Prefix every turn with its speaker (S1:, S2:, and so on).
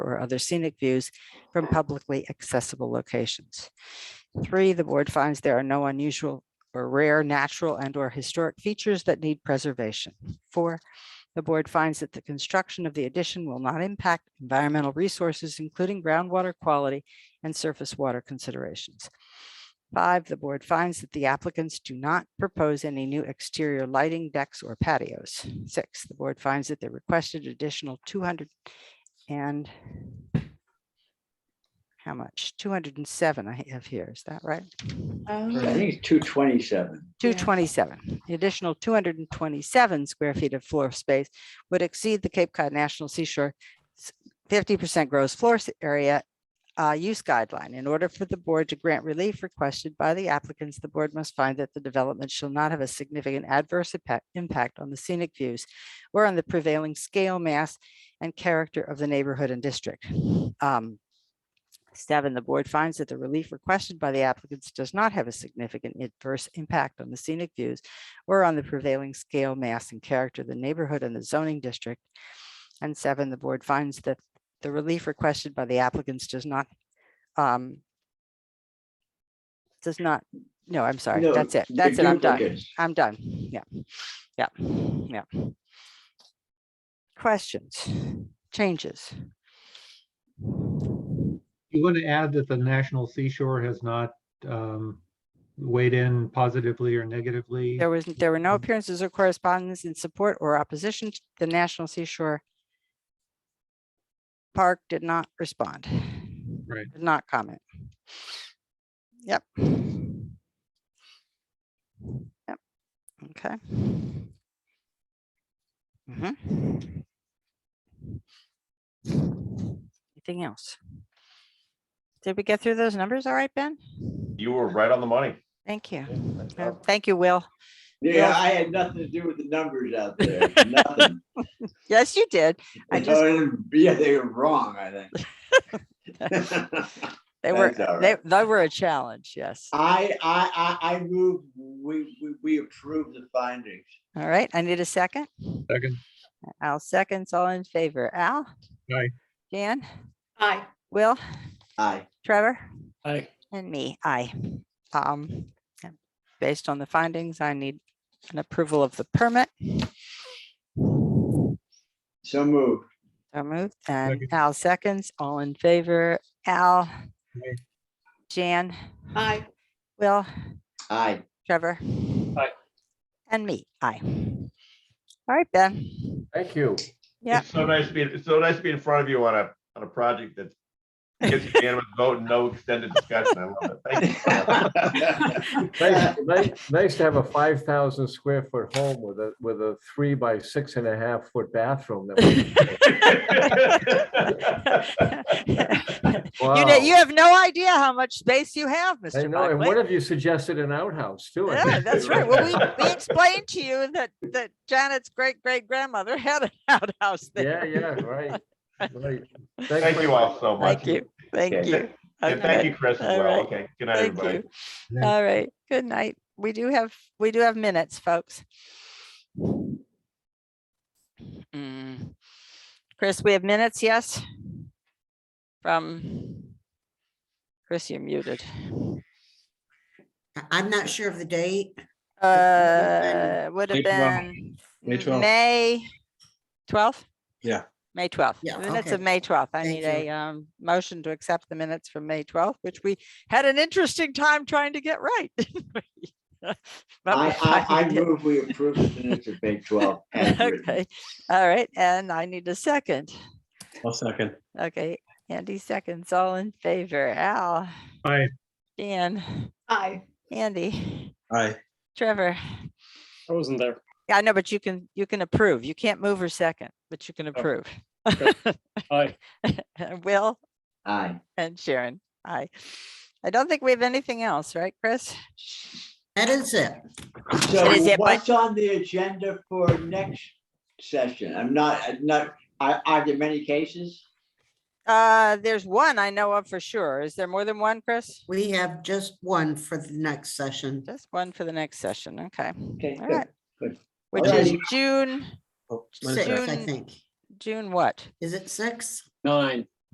S1: or other scenic views from publicly accessible locations. Three, the board finds there are no unusual or rare natural and or historic features that need preservation. Four, the board finds that the construction of the addition will not impact environmental resources, including groundwater quality and surface water considerations. Five, the board finds that the applicants do not propose any new exterior lighting decks or patios. Six, the board finds that the requested additional two hundred and how much? Two hundred and seven I have here, is that right?
S2: I think it's two twenty-seven.
S1: Two twenty-seven, the additional two hundred and twenty-seven square feet of floor space would exceed the Cape Cod National Seashore fifty percent gross floor s- area uh, use guideline. In order for the board to grant relief requested by the applicants, the board must find that the development shall not have a significant adverse impact- impact on the scenic views or on the prevailing scale, mass, and character of the neighborhood and district. Um, Seven, the board finds that the relief requested by the applicants does not have a significant adverse impact on the scenic views or on the prevailing scale, mass, and character of the neighborhood and the zoning district. And seven, the board finds that the relief requested by the applicants does not um does not, no, I'm sorry,
S2: No,
S1: that's it,
S2: the
S1: that's it, I'm done,
S2: duplicates.
S1: I'm done, yeah, yeah, yeah. Questions, changes?
S3: You want to add that the National Seashore has not um, weighed in positively or negatively?
S1: There was, there were no
S3: Mhm.
S1: appearances or correspondence in support or opposition to the National Seashore. Park did not respond.
S3: Right.
S1: Did not comment. Yep. Yep. Okay. Mhm. Anything else? Did we get through those numbers all right, Ben?
S4: You were right on the money.
S1: Thank you. Uh, Thank you, Will.
S2: Yeah, I had nothing to do with the numbers out there, nothing.
S1: Yes, you did. I
S2: No,
S1: just-
S2: I didn't- Yeah, they were wrong, I think.
S1: They were,
S2: That's all Oh.
S1: they, they were a challenge, yes. All
S2: I, I, I, I move, we, we, we approve the findings.
S1: right, I need a second.
S3: Second,
S1: Al seconds, all in favor. Al?
S3: Aye.
S1: Jan?
S5: Aye.
S1: Will?
S2: Aye.
S1: Trevor?
S6: Aye.
S1: And me, aye. Um, yeah, based on the findings, I need an approval of the permit.
S2: So moved.
S1: So moved, and
S3: Second.
S1: Al seconds, all in favor. Al?
S3: Aye.
S1: Jan?
S5: Aye.
S1: Will?
S2: Aye.
S1: Trevor?
S6: Aye.
S1: And me, aye. All right, Ben.
S6: Thank you.
S1: Yeah.
S4: It's so nice being, it's so nice to be in front of you on a, on a project that gets unanimous vote and no extended discussion. I love it. Thank you. for that.
S6: Nice nice- nice to have a five thousand square foot home with a, with a three by six and a half foot bathroom. that we-
S1: You,
S6: Wow.
S1: know, you have no idea how much space you have,
S6: I
S1: Mr.
S6: know, and
S1: Buckley.
S6: one of you suggested an outhouse too. I
S1: Yeah,
S6: think.
S1: that's right. Well, we, we explained to you that, that Janet's great great grandmother had an outhouse
S6: Yeah,
S1: there.
S6: yeah, right. right. Thanks
S4: Thank
S6: for-
S4: you all so much.
S1: Thank you, thank
S4: Yeah,
S1: you.
S4: And thank you,
S1: Okay,
S4: Chris, as
S1: All
S4: well.
S1: right.
S4: Okay, good night,
S1: Thank
S4: everybody.
S1: you.
S3: Yeah.
S1: All right, good night. We do have, we do have minutes, folks. Mm. Chris, we have minutes, yes? From, Chris, you're muted.
S7: I- I'm not sure of the date.
S1: Uh, would have
S8: May 12th.
S1: been
S8: May
S1: m-
S8: 12th.
S1: May twelfth?
S8: Yeah.
S1: May twelfth.
S7: Yeah,
S1: Minutes
S7: okay.
S1: of May twelfth. I
S7: Thank
S1: need a
S7: you.
S1: um motion to accept the minutes from May twelfth, which we had an interesting time trying to get right. didn't we? But we
S2: I, I, I
S1: finally did.
S2: move, we approve the minutes of May twelve. as written.
S1: Okay, all right, and I need a second.
S8: I'll second.
S1: Okay, Andy seconds, all in favor. Al,
S3: Aye.
S1: Dan,
S5: Aye.
S1: Andy,
S8: Aye.
S1: Trevor.
S6: I wasn't there.
S1: Yeah, I know, but you can, you can approve. You can't move or second, but you can approve.
S6: Aye.
S1: Will
S2: Aye.
S1: and Sharon, aye. I don't think we have anything else, right, Chris?
S7: That is it.
S2: So
S1: Is it by-
S2: what's on the agenda for next session? I'm not, I'm not, are, are there many cases?
S1: Uh, there's one I know of for sure. Is there more than one, Chris?
S7: We have just one for the next session.
S1: Just one for the next session, okay,
S2: Okay,
S1: All
S2: good.
S1: right. which is June,
S8: Oh, one
S7: Six,
S8: second.
S7: I
S1: June-
S7: think.
S1: June what?
S7: Is it six?
S6: Nine.